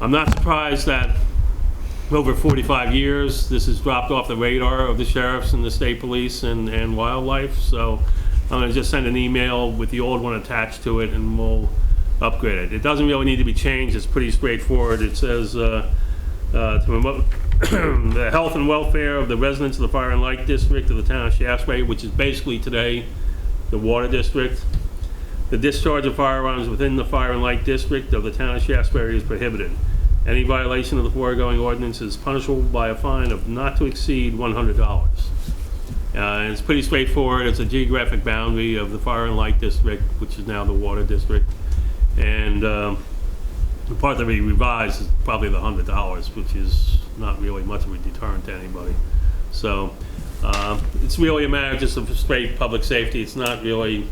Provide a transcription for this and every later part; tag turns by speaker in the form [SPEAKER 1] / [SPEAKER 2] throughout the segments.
[SPEAKER 1] I'm not surprised that over 45 years, this has dropped off the radar of the sheriffs and the state police and, and wildlife, so I'm gonna just send an email with the old one attached to it, and we'll upgrade it. It doesn't really need to be changed, it's pretty straightforward. It says, uh, uh, to promote the health and welfare of the residents of the Fire and Light District of the town of Shaftsbury, which is basically today the Water District. The discharge of firearms within the Fire and Light District of the town of Shaftsbury is prohibited. Any violation of the foregoing ordinance is punishable by a fine of not to exceed $100. Uh, and It's pretty straightforward. It's a geographic boundary of the Fire and Light District, which is now the Water District. And um, the part that we revised is probably the hundred dollars, which is not really much of a deterrent to anybody. So, uh, it's really a matter just of straight public safety, it's not really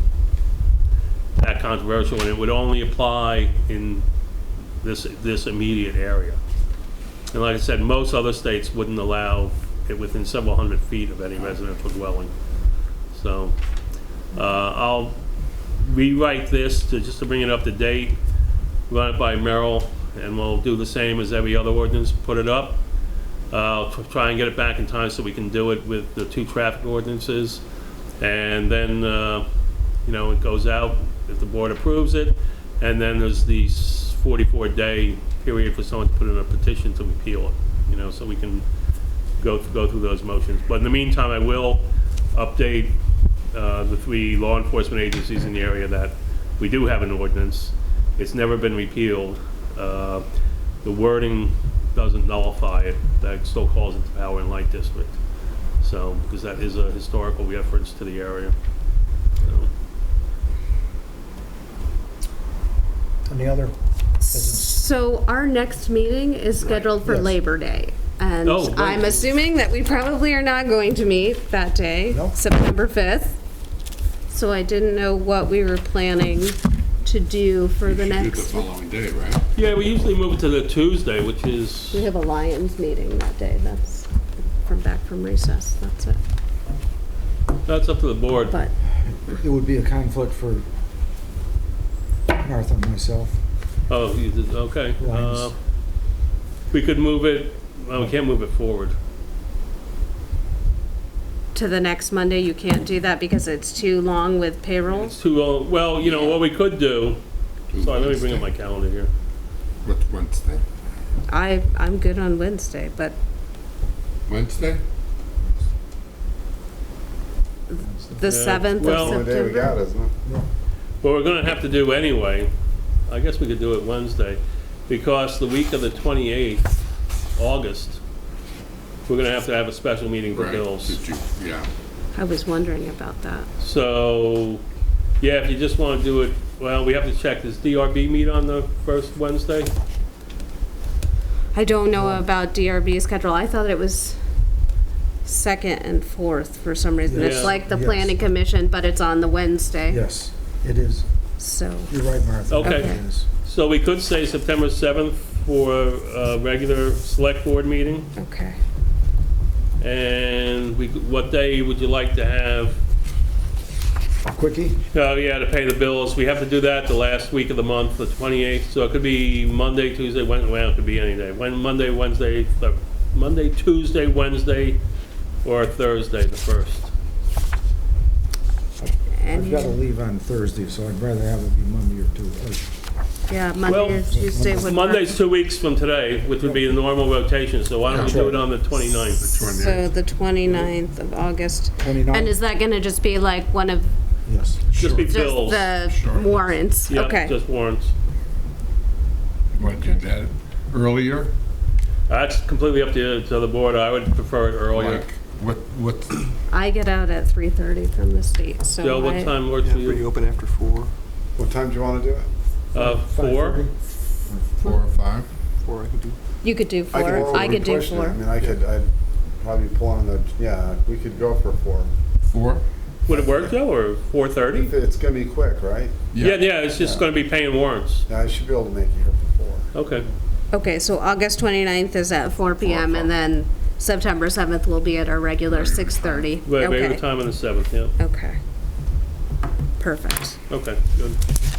[SPEAKER 1] that controversial, and it would only apply in this, this immediate area. And like I said, most other states wouldn't allow it within several hundred feet of any residential dwelling. So, uh, I'll rewrite this to, just to bring it up to date, run it by Merrill, and we'll do the same as every other ordinance, put it up. Uh, I'll tr- try and get it back in time so we can do it with the two traffic ordinances. And then, uh, you know, it goes out if the board approves it. And then there's the s- 44-day period for someone to put in a petition to repeal it, you know, so we can go, go through those motions. But in the meantime, I will update uh, the three law enforcement agencies in the area that we do have an ordinance. It's never been repealed. Uh, The wording doesn't nullify it, that still calls it the Power and Light District. So, because that is a historical reference to the area. So,
[SPEAKER 2] Any other business?
[SPEAKER 3] So our next meeting is scheduled for
[SPEAKER 2] Yes.
[SPEAKER 3] Labor Day. And
[SPEAKER 1] Oh, right.
[SPEAKER 3] I'm assuming that we probably are not going to meet that day,
[SPEAKER 2] Nope.
[SPEAKER 3] September 5th. So I didn't know what we were planning to do for the
[SPEAKER 4] You should do it
[SPEAKER 3] next.
[SPEAKER 4] The following day, right?
[SPEAKER 1] Yeah, we usually move it to the Tuesday, which is,
[SPEAKER 3] We have a Lions meeting that day. That's from back from recess. That's it.
[SPEAKER 1] that's up to the board.
[SPEAKER 3] But
[SPEAKER 2] It would be a conflict for Martha and myself.
[SPEAKER 1] Oh, you did- okay.
[SPEAKER 2] Lines.
[SPEAKER 1] Uh, We could move it, well, we can't move it forward.
[SPEAKER 3] to the next Monday, you can't do that because it's too long with payroll.
[SPEAKER 1] It's too, long. uh, well, you know, what we could do, sorry, let me bring up my calendar here.
[SPEAKER 4] What's Wednesday?
[SPEAKER 3] I, I'm good on Wednesday, but
[SPEAKER 4] Wednesday?
[SPEAKER 3] the 7th
[SPEAKER 1] well-
[SPEAKER 3] of
[SPEAKER 1] Only
[SPEAKER 5] Only Oh, day we got,
[SPEAKER 3] September.
[SPEAKER 5] isn't it?
[SPEAKER 1] What we're gonna have to do anyway, I guess we could do it Wednesday, because the week of the 28th, August, we're gonna have to have a special meeting for
[SPEAKER 4] Right.
[SPEAKER 1] bills.
[SPEAKER 4] Did you, yeah.
[SPEAKER 3] I was wondering about that.
[SPEAKER 1] So, yeah, if you just wanna do it, well, we have to check, does DRB meet on the first Wednesday?
[SPEAKER 3] I don't know about DRB schedule. I thought it was second and fourth for some reason. It's
[SPEAKER 1] Yeah.
[SPEAKER 3] like the
[SPEAKER 2] Yes.
[SPEAKER 3] planning commission, but it's on the Wednesday,
[SPEAKER 2] Yes, it is.
[SPEAKER 3] so.
[SPEAKER 2] You're right, Martha.
[SPEAKER 1] Okay.
[SPEAKER 2] It is.
[SPEAKER 1] So we could say September 7th for a regular select board meeting,
[SPEAKER 3] Okay.
[SPEAKER 1] and we, could- what day would you like to have?
[SPEAKER 2] Quickie?
[SPEAKER 1] Oh, yeah, to pay the bills. We have to do that the last week of the month, the 28th, so it could be Monday, Tuesday, Wednesday, well, it could be any day. When, Monday, Wednesday, th- Monday, Tuesday, Wednesday, or Thursday, the 1st.
[SPEAKER 2] I've got to
[SPEAKER 3] And,
[SPEAKER 2] leave on Thursday, so I'd rather have it be Monday or Tuesday.
[SPEAKER 3] yeah,
[SPEAKER 1] Well,
[SPEAKER 3] Monday or Tuesday would work.
[SPEAKER 1] Monday's two weeks from today, which would be the normal rotation, so why don't we do it on the 29th?
[SPEAKER 3] So
[SPEAKER 4] 29th.
[SPEAKER 3] the 29th of August.
[SPEAKER 2] 29th.
[SPEAKER 3] And is that going to just be like one of
[SPEAKER 2] Yes.
[SPEAKER 1] Just be
[SPEAKER 3] just
[SPEAKER 1] bills.
[SPEAKER 3] the
[SPEAKER 4] Sure.
[SPEAKER 3] warrants?
[SPEAKER 1] Yeah,
[SPEAKER 3] Okay.
[SPEAKER 1] just warrants.
[SPEAKER 4] Want to do that earlier?
[SPEAKER 1] That's completely up to, to the board. I would prefer it earlier.
[SPEAKER 4] Like, what, what,
[SPEAKER 3] I get out at 3:30 from the state, so.
[SPEAKER 1] Joe, what
[SPEAKER 3] I-
[SPEAKER 1] time works for you?
[SPEAKER 6] open after four,
[SPEAKER 5] What time do you want to do it?
[SPEAKER 1] Uh, four?
[SPEAKER 2] 5:30?
[SPEAKER 4] four or five?
[SPEAKER 6] four I can do.
[SPEAKER 3] You could do
[SPEAKER 5] well,
[SPEAKER 3] four. I
[SPEAKER 5] we
[SPEAKER 3] could do
[SPEAKER 5] pushed it. I
[SPEAKER 3] four.
[SPEAKER 5] mean, I could, I'd probably pull on the, yeah, we could go for four.
[SPEAKER 4] Four?
[SPEAKER 1] Would it work, Joe, or 4:30?
[SPEAKER 5] It's going to be quick, right?
[SPEAKER 1] Yeah, yeah, it's just gonna be paying warrants.
[SPEAKER 5] Yeah, I should be able to make it here for four.
[SPEAKER 1] Okay.
[SPEAKER 3] Okay, so August 29th is at four PM, and then September 7th will be at our regular 6:30.
[SPEAKER 1] Right,
[SPEAKER 3] Okay.
[SPEAKER 1] regular time on the 7th, yeah.
[SPEAKER 3] Okay. Perfect.
[SPEAKER 1] Okay, good.